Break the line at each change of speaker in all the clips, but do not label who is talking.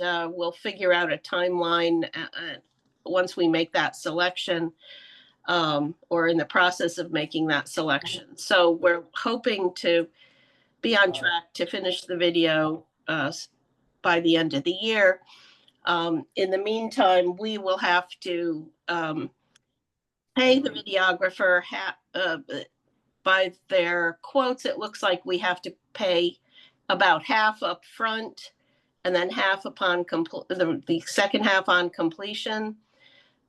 uh, we'll figure out a timeline uh, uh, once we make that selection um, or in the process of making that selection. So we're hoping to be on track to finish the video uh, s- by the end of the year. Um, In the meantime, we will have to um, pay the videographer ha- uh, by their quotes. It looks like we have to pay about half up front, and then half upon compl- the, the second half on completion.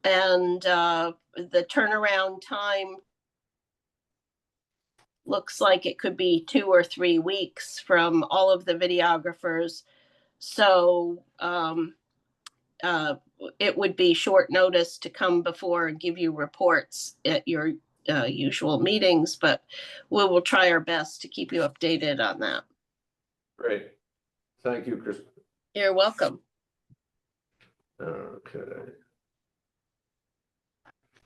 And uh, the turnaround time looks like it could be two or three weeks from all of the videographers. So um, uh, it would be short notice to come before and give you reports at your uh, usual meetings, but we will try our best to keep you updated on that.
Great. Thank you, Chris.
You're welcome.
Okay.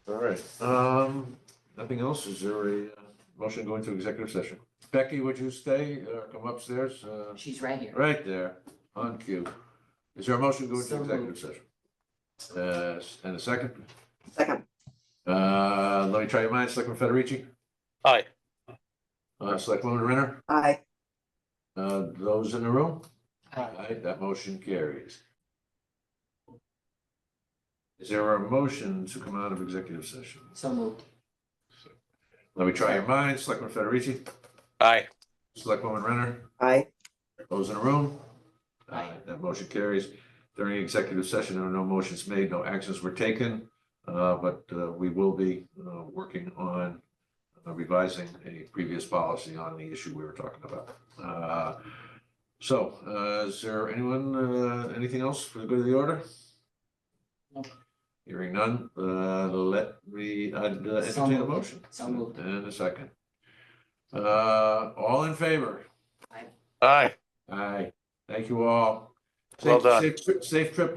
All right, um, nothing else? Is there a uh, motion going to executive session? Becky, would you stay or come upstairs? Uh,
She's right here.
Right there, on cue. Is there a motion going to
So
executive session? Uh, and a second?
Second.
Uh, let me try your minds, Selectman Federici,
Aye.
uh, Selectwoman Renner,
Aye.
uh, those in the room? Aye, that motion carries. Is there a motion to come out of executive session?
So moved.
Let me try your minds, Selectman Federici,
Aye.
Selectwoman Renner,
Aye.
those in the room?
Aye.
That motion carries. During executive session, there are no motions made, no actions were taken, uh, but, uh, we will be, uh, working on uh, revising a previous policy on the issue we were talking about. Uh, so, uh, is there anyone, uh, anything else for the good of the order?
No.
Hearing none, uh, let me, uh, entertain a
moved.
motion.
So moved.
And a second. Uh, all in favor?
Aye.
Aye, thank you all.
Well
Safe-
done.
safe tri- Safe trip